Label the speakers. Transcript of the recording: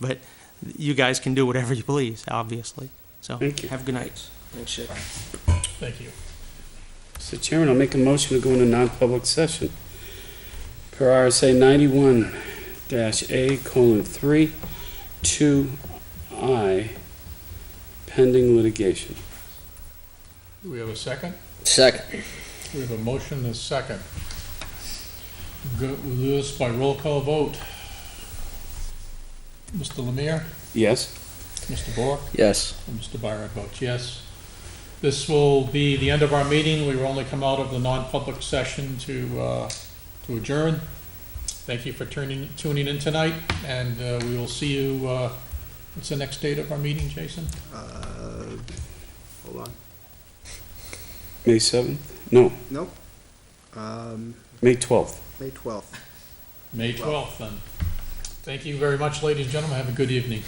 Speaker 1: but you guys can do whatever you please, obviously. So,
Speaker 2: Thank you.
Speaker 1: have a good night.
Speaker 3: Thanks, Jake.
Speaker 4: Thank you.
Speaker 2: Mr. Chairman, I'll make a motion to go into non-public session per RSA ninety-one dash A colon three, two I, pending litigation.
Speaker 4: Do we have a second?
Speaker 3: Second.
Speaker 4: We have a motion and a second. Go, we'll do this by roll call vote. Mr. Lemire,
Speaker 2: Yes?
Speaker 4: Mr. Bork,
Speaker 3: Yes.
Speaker 4: and Mr. Byron votes yes. This will be the end of our meeting. We will only come out of the non-public session to, uh, to adjourn. Thank you for turning, tuning in tonight, and, uh, we will see you, uh, what's the next date of our meeting, Jason?
Speaker 5: Uh, hold on.
Speaker 2: May seventh? No,
Speaker 5: Nope. Um,
Speaker 2: May twelfth.
Speaker 5: May twelfth.
Speaker 4: May twelfth, then. Thank you very much, ladies and gentlemen. Have a good evening.